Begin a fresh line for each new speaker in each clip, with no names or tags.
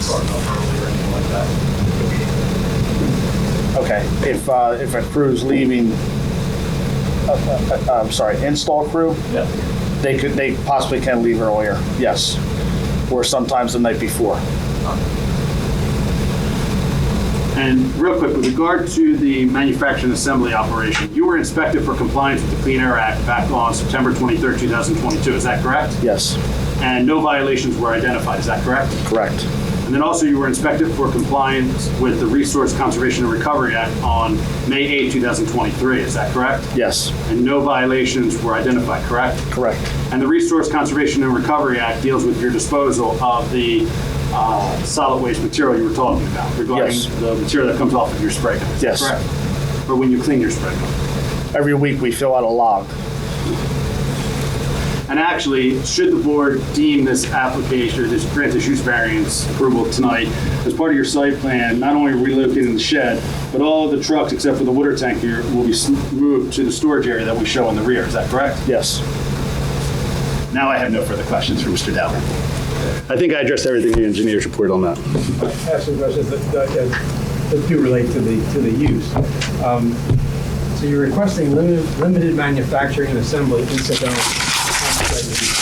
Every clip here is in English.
starting up early or anything like that.
Okay, if, uh, if a crew's leaving, uh, uh, uh, I'm sorry, install crew,
Yeah.
they could, they possibly can leave earlier, yes. Or sometimes the night before.
And real quick, with regard to the manufacturing and assembly operation, you were inspected for compliance with the Clean Air Act back on September 23rd, 2022, is that correct?
Yes,
And no violations were identified, is that correct?
correct,
And then also you were inspected for compliance with the Resource Conservation and Recovery Act on May 8, 2023, is that correct?
yes,
And no violations were identified, correct?
correct,
And the Resource Conservation and Recovery Act deals with your disposal of the uh, solid waste material you were talking about regarding
Yes.
the material that comes off of your spray gun. Is that
Yes.
Correct. Or when you clean your spray gun.
Every week we fill out a log.
And actually, should the board deem this application, or this grant this use variance approval tonight, as part of your site plan, not only relocating the shed, but all of the trucks except for the water tank here will be s- moved to the storage area that we show in the rear. Is that correct?
Yes,
Now I have no further questions for Mr. Dowling. I think I addressed everything in the engineer's report on that.
ask some questions that, that- that- that do relate to the, to the use. Um, So you're requesting limited, limited manufacturing and assembly incidental. on-site use.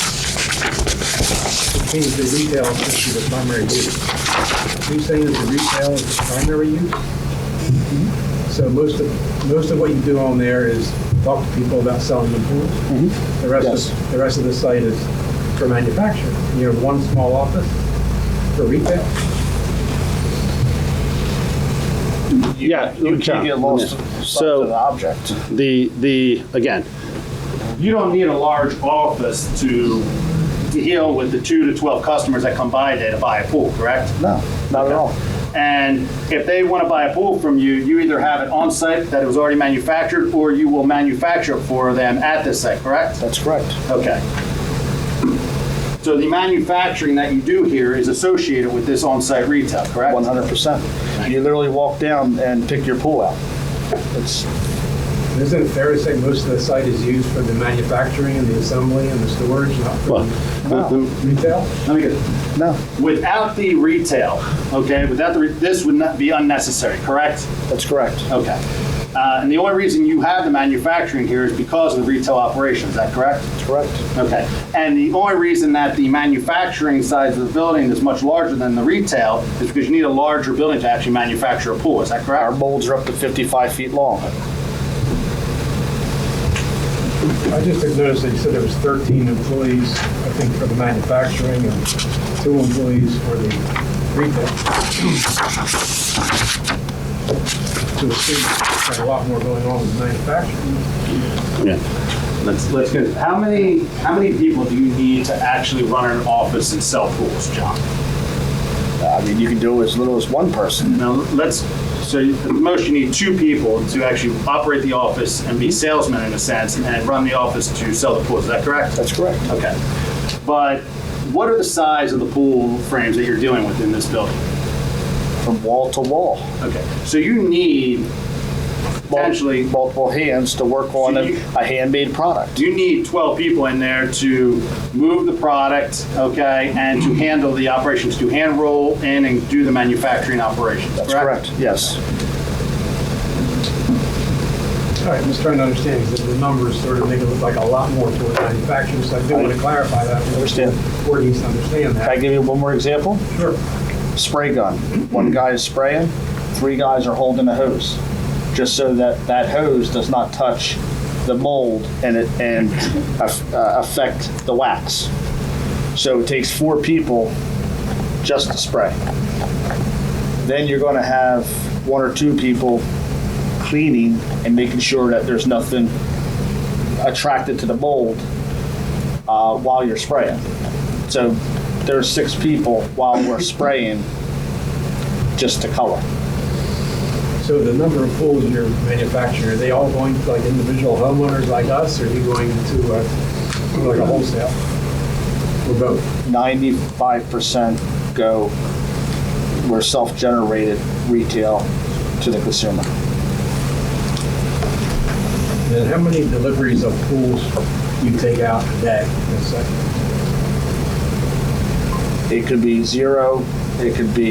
Which means the retail is the primary use. Are you saying that the retail is the primary use? So most of, most of what you do on there is talk to people about selling the pool. The rest
Yes.
of, the rest of the site is for manufacturing. You have one small office for retail?
Yeah,
you can get lost to the
So
object.
the, the, again,
you don't need a large office to to deal with the two to 12 customers that come by there to buy a pool, correct?
No, not at all.
And if they want to buy a pool from you, you either have it on site that it was already manufactured, or you will manufacture it for them at this site, correct?
That's correct.
Okay. So the manufacturing that you do here is associated with this on-site retail, correct?
100%. You literally walk down and pick your pool out. It's,
Isn't it fair to say most of the site is used for the manufacturing and the assembly and the storage, not for
well, the- the-
retail?
Let me get it.
no,
Without the retail, okay, without the, re- this would not be unnecessary, correct?
that's correct.
Okay. Uh, And the only reason you have the manufacturing here is because of the retail operation, is that correct?
That's correct.
Okay. And the only reason that the manufacturing size of the building is much larger than the retail is because you need a larger building to actually manufacture a pool, is that
Our
correct?
molds are up to 55 feet long.
I just had noticed that you said there was 13 employees, I think, for the manufacturing and two employees for the retail. To assume there's a lot more going on with manufacturing.
yeah.
Let's, let's get, how many, how many people do you need to actually run an office and sell pools, John?
I mean, you can do as little as one person.
Now, let's, so at the most, you need two people to actually operate the office and be
Mm-hmm.
salesmen in a sense and run the office to sell the pools, is that correct?
That's correct.
Okay. But what are the size of the pool frames that you're dealing with in this building?
From wall to wall.
Okay. So you need
Mul-
potentially,
Multiple hands to work on a
you-
a handmade product.
you need 12 people in there to move the product, okay, and to handle the operations, to hand roll in and do the manufacturing operations,
That's correct, yes.
All right, I'm just trying to understand, because the numbers sort of make it look like a lot more toward manufacturing, so I do want to clarify that.
Understand.
Or at least understand
Can I
that.
give you one more example?
Sure.
Spray gun. One guy is spraying, three guys are holding a hose, just so that that hose does not touch the mold and it, and aff- uh, affect the wax. So it takes four people just to spray. Then you're going to have one or two people cleaning and making sure that there's nothing attracted to the mold uh, while you're spraying. So there's six people while we're spraying just to color.
So the number of pools you're manufacturing, are they all going to like individual homeowners like us, or are you going to uh, like a wholesale? Or both?
95% go, we're self-generated retail to the consumer.
And how many deliveries of pools you take out a day? That's like-
It could be zero, it could be